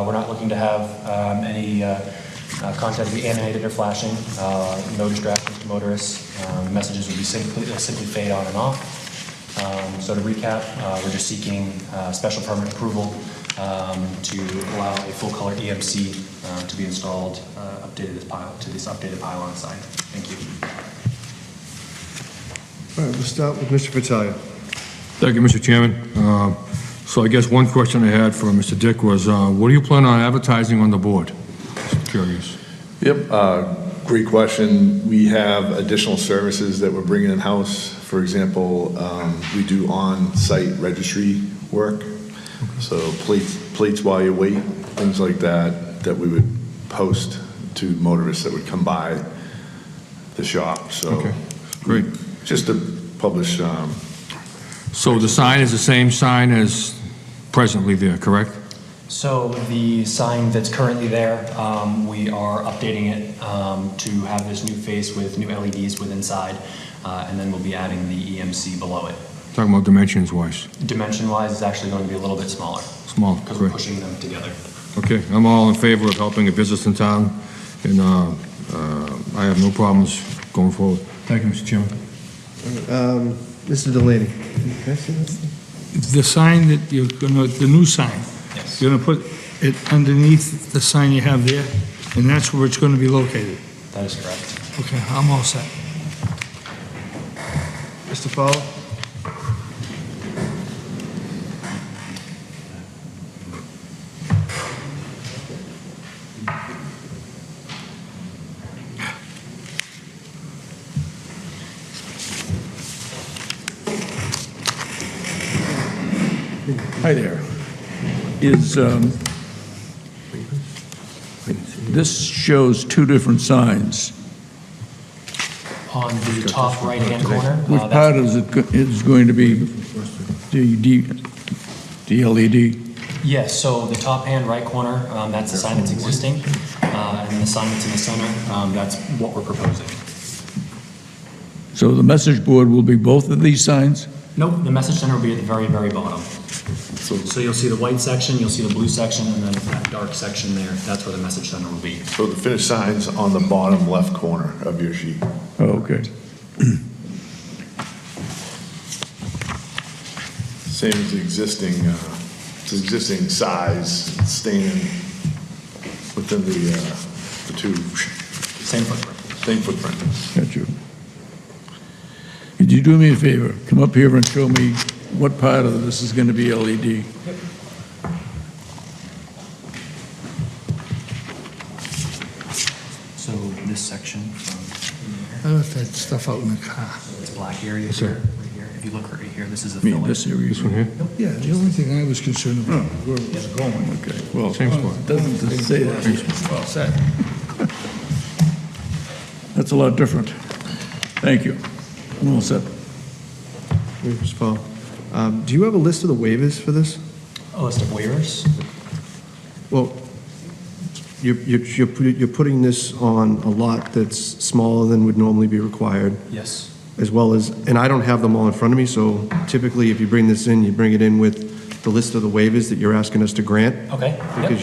Uh, We're not looking to have um, any uh, uh, content be animated or flashing, uh, no distractions to motorists. Um, Messages will be simply, they'll simply fade on and off. Um, So to recap, uh, we're just seeking uh, special permit approval um, to allow a full-color EMC uh, to be installed, uh, updated as pile, to this updated pylon sign. Thank you. All right, we'll start with Mr. Fattalia. Thank you, Mr. Chairman. Uh, So I guess one question I had for Mr. Dick was, uh, what do you plan on advertising on the board? Just Curious. Yep, uh, great question. We have additional services that we're bringing in-house. For example, um, we do on-site registry work, so plates, plates while you wait, things like that, that we would post to motorists that would come by the shop, so. Okay, great. Just to publish, um, So the sign is the same sign as presently there, correct? So the sign that's currently there, um, we are updating it um, to have this new face with new LEDs with inside, uh, and then we'll be adding the EMC below it. Talking about dimensions wise, Dimension-wise, it's actually going to be a little bit smaller small, because we're correct? pushing them together. Okay, I'm all in favor of helping a business in town, and uh, uh, I have no problems going forward. Thank you, Mr. Chairman. Um, Mr. Delaney. Can I see this? The sign that you're gonna, the new sign, Yes. you're gonna put it underneath the sign you have there, and that's where it's gonna be located. That is correct. Okay, I'm all set. Mr. Fowler? Hi there. Is, um, this shows two different signs. On the top right-hand corner, Which uh, that's- part is it, go- is going to be the D, E the LED? yes, so the top hand right corner, um, that's the sign that's existing, uh, and the sign that's in the center, um, that's what we're proposing. So the message board will be both of these signs? Nope, the message center will be at the very, very bottom. So you'll see the white section, you'll see the blue section, and then that dark section there, that's where the message center will be. so the finished sign's on the bottom left corner of your sheet. Oh, Okay. Same as the existing, uh, it's existing size, it's staying within the, uh, the two, Same footprint. same footprint. Got you. Could you do me a favor? Come up here and show me what part of this is going to be E LED? So this section from I left that stuff out in the car. here, this black area sir. here, right here, if you look right here, this is the I mean, filling. this area. This one here? Yeah, the only thing I was concerned about, where it was going. Okay, well, Same spot. it doesn't say that. All set. That's a lot different. Thank you. I'm all set. Wait, Mr. Fowler. Um, Do you have a list of the waivers for this? A list of Oh, waivers? Well, you're, you're, you're pu- you're putting this on a lot that's smaller than would normally be required, Yes. as well as, and I don't have them all in front of me, so typically if you bring this in, you bring it in with the list of the waivers that you're asking us to grant, Okay, because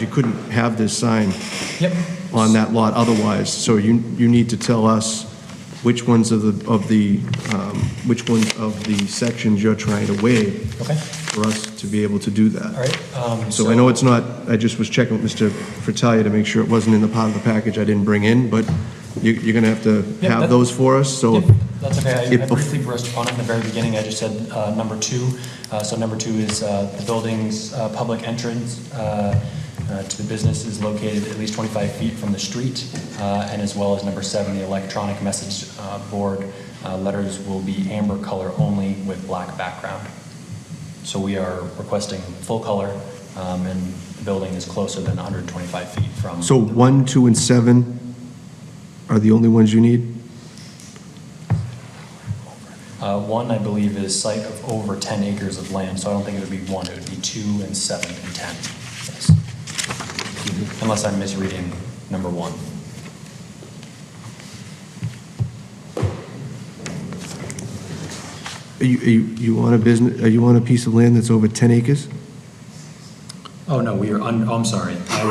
yep, you couldn't have this sign yep. on that lot otherwise. So you, you need to tell us which ones of the, of the, um, which ones of the sections you're trying to waive Okay, for us to be able to do that. all right. um, So I know it's not, I just was checking with Mr. Fratelli to make sure it wasn't in the part of the package I didn't bring in, but you, you're gonna have to Yeah, that- have those for us, so. Yep, That's okay, I- I If- briefly brushed upon it in the very beginning, I just said uh, number two. Uh, So number two is uh, the building's uh, public entrance uh, uh, to the business is located at least 25 feet from the street, uh, and as well as number seven, the electronic message uh, board uh, letters will be amber color only with black background. So we are requesting full color, um, and the building is closer than 125 feet from. So one, two, and seven are the only ones you need? Uh, One, I believe, is site of over 10 acres of land, so I don't think it would be one, it would be two and seven and 10. Yes. Unless I'm misreading number one. Are you, are you, you want a business, are you on a piece of land that's over ten acres? Oh, no, we are, un- oh, I'm sorry. I